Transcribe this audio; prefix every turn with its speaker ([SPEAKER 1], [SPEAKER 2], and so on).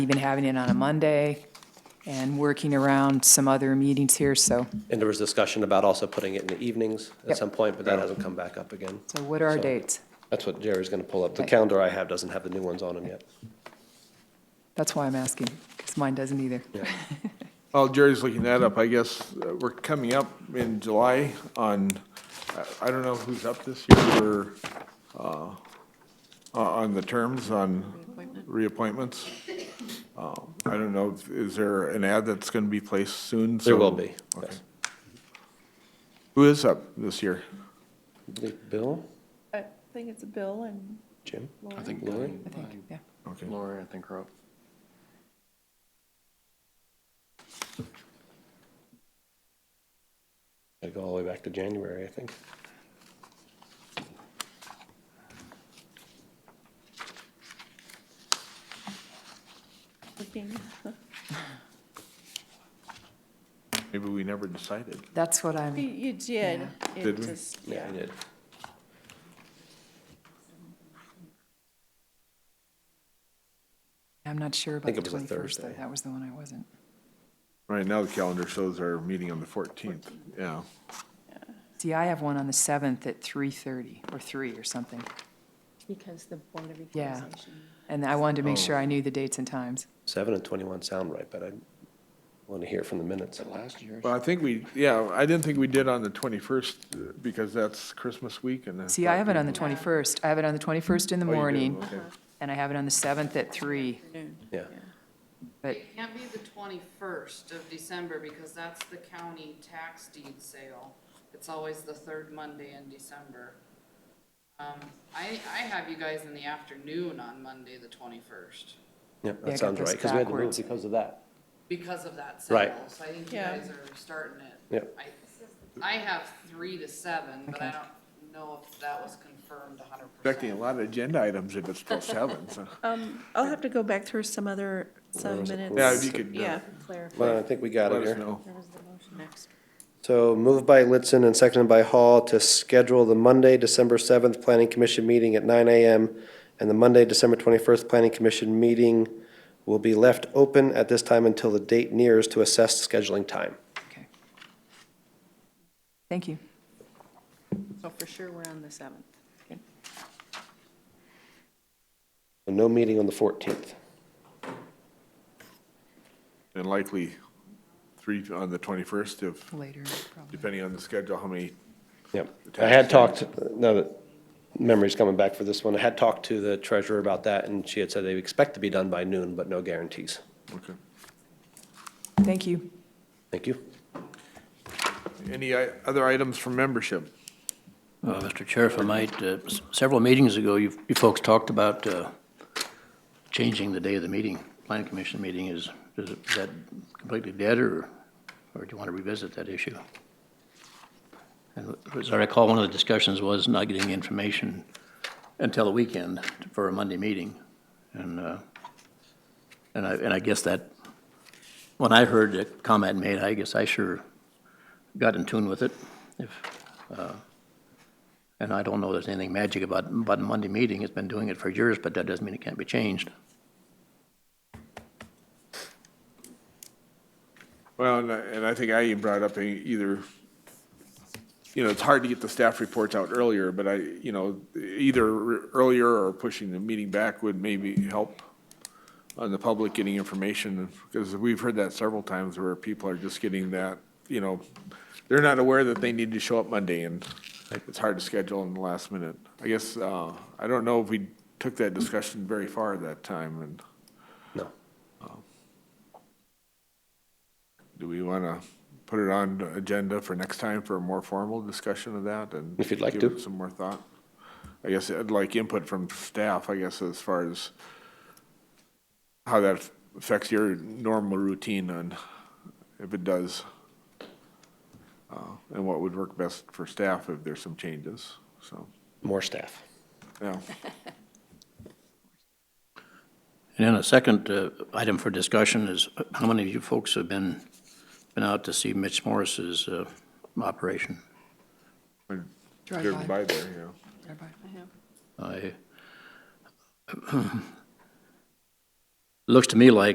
[SPEAKER 1] even having it on a Monday and working around some other meetings here, so,
[SPEAKER 2] And there was discussion about also putting it in the evenings
[SPEAKER 1] Yep.
[SPEAKER 2] at some point, but that hasn't come back up again.
[SPEAKER 1] so what are our
[SPEAKER 2] So-
[SPEAKER 1] dates?
[SPEAKER 2] That's what Jerry's gonna pull up. The
[SPEAKER 1] Okay.
[SPEAKER 2] calendar I have doesn't have the new ones on them yet.
[SPEAKER 1] That's why I'm asking, because mine doesn't either.
[SPEAKER 2] Yeah.
[SPEAKER 3] While Jerry's looking that up, I guess uh, we're coming up in July on, I I don't know who's up this year or, uh, o- on the terms, on reappointments. Uh, I don't know, if- is there an ad that's going to be placed soon?
[SPEAKER 2] There will
[SPEAKER 3] So-
[SPEAKER 2] be,
[SPEAKER 3] okay.
[SPEAKER 2] yes.
[SPEAKER 3] Who is up this year?
[SPEAKER 2] I believe Bill,
[SPEAKER 4] I think it's Bill and
[SPEAKER 2] Jim?
[SPEAKER 5] I think
[SPEAKER 2] Lori?
[SPEAKER 5] Lori,
[SPEAKER 1] I think, yeah.
[SPEAKER 3] Okay.
[SPEAKER 5] Lori, I think her up.
[SPEAKER 2] I go all the way back to January, I think.
[SPEAKER 4] looking.
[SPEAKER 3] Maybe we never decided.
[SPEAKER 1] That's what
[SPEAKER 4] You-
[SPEAKER 1] I'm,
[SPEAKER 4] You did. It
[SPEAKER 3] Did we?
[SPEAKER 4] just-
[SPEAKER 2] Yeah, I
[SPEAKER 4] Yeah.
[SPEAKER 2] did.
[SPEAKER 1] I'm not sure about
[SPEAKER 2] think
[SPEAKER 1] the
[SPEAKER 2] it was a
[SPEAKER 1] 21st, though.
[SPEAKER 2] Thursday.
[SPEAKER 1] That was the one I wasn't.
[SPEAKER 3] Right now, the calendar shows our meeting on the 14th, yeah.
[SPEAKER 1] See, I have one on the 7th at 3:30 or 3 or something,
[SPEAKER 6] Because the Board of
[SPEAKER 1] Yeah.
[SPEAKER 6] Equalization.
[SPEAKER 1] and I wanted to make
[SPEAKER 2] Oh.
[SPEAKER 1] sure I knew the dates and times.
[SPEAKER 2] Seven and twenty-one sound right, but I want to hear from the minutes.
[SPEAKER 5] Last year.
[SPEAKER 3] Well, I think we, yeah, I didn't think we did on the 21st uh, because that's Christmas week and.
[SPEAKER 1] See, I have it on the
[SPEAKER 3] thought
[SPEAKER 1] 21st. I have it on the 21st in the
[SPEAKER 3] we- Oh, you do,
[SPEAKER 1] morning,
[SPEAKER 3] okay.
[SPEAKER 1] and I have it on the 7th at 3,
[SPEAKER 2] Yeah.
[SPEAKER 1] but
[SPEAKER 7] It can't be the twenty-first of December because that's the county tax deed sale. It's always the third Monday in December. Um, I, I have you guys in the afternoon on Monday, the twenty-first,
[SPEAKER 2] Yep,
[SPEAKER 1] Yeah, I
[SPEAKER 2] that sounds
[SPEAKER 1] got this
[SPEAKER 2] right, because we had to move
[SPEAKER 1] backwards.
[SPEAKER 2] because of that.
[SPEAKER 7] because of that sale.
[SPEAKER 2] Right.
[SPEAKER 7] So I think you
[SPEAKER 4] Yeah.
[SPEAKER 7] guys are starting it.
[SPEAKER 2] Yep.
[SPEAKER 7] I, I have three to seven, but I
[SPEAKER 1] Okay.
[SPEAKER 7] don't know if that was confirmed a hundred percent.
[SPEAKER 3] Expecting a lot of agenda items if it's till seven, so.
[SPEAKER 4] Um, I'll have to go back through some other, some
[SPEAKER 2] was it?
[SPEAKER 4] minutes.
[SPEAKER 3] Yeah, if you could. uh,
[SPEAKER 4] Yeah.
[SPEAKER 2] Well,
[SPEAKER 6] Clarify.
[SPEAKER 2] I think we got
[SPEAKER 3] Let
[SPEAKER 2] it
[SPEAKER 3] us
[SPEAKER 2] here.
[SPEAKER 3] know.
[SPEAKER 6] There was the motion next.
[SPEAKER 2] So moved by Litzen and seconded by Hall to schedule the Monday, December 7th Planning Commission meeting at 9 AM and the Monday, December 21st Planning Commission meeting will be left open at this time until the date nears to assess scheduling time.
[SPEAKER 1] Okay. Thank you.
[SPEAKER 6] So for sure, we're on the 7th.
[SPEAKER 2] No meeting on the 14th.
[SPEAKER 3] And likely three on the 21st if,
[SPEAKER 1] Later, probably.
[SPEAKER 3] depending on the schedule, how many.
[SPEAKER 2] Yep. I had talked, now that memory's coming back for this one, I had talked to the treasurer about that and she had said they expect to be done by noon, but no guarantees.
[SPEAKER 3] Okay.
[SPEAKER 1] Thank you.
[SPEAKER 2] Thank you.
[SPEAKER 3] Any i- other items from membership?
[SPEAKER 8] Uh, Mr. Chair, if I might, uh, s- several meetings ago, you you folks talked about uh, changing the day of the meeting. Plan Commission meeting is, is it- is that completely dead, or, or do you want to revisit that issue? And as I recall, one of the discussions was not getting the information until the weekend for a Monday meeting. And, uh, and I, and I guess that, when I heard the comment made, I guess I sure got in tune with it, if, and I don't know there's anything magic about, about a Monday meeting. It's been doing it for years, but that doesn't mean it can't be changed.
[SPEAKER 3] Well, and I- and I think I even brought up a- either, you know, it's hard to get the staff reports out earlier, but I, you know, either r- earlier or pushing the meeting back would maybe help on the public getting information, because we've heard that several times where people are just getting that, you know, they're not aware that they need to show up Monday, and it's hard to schedule in the last minute. I guess, uh, I don't know if we took that discussion very far that time, and
[SPEAKER 2] No.
[SPEAKER 3] do we want to put it on the agenda for next time for a more formal discussion of that and?
[SPEAKER 2] If you'd like
[SPEAKER 3] give
[SPEAKER 2] to.
[SPEAKER 3] it Some more thought. I guess I'd like input from staff, I guess, as far as how that affects your normal routine and if it does. uh, And what would work best for staff if there's some changes, so,
[SPEAKER 2] More staff.
[SPEAKER 3] yeah.
[SPEAKER 8] And then a second uh, item for discussion is uh, how many of you folks have been, been out to see Mitch Morris's uh, operation?
[SPEAKER 1] Drive
[SPEAKER 3] Driven
[SPEAKER 1] by.
[SPEAKER 3] by there, you know.
[SPEAKER 8] I, looks to me like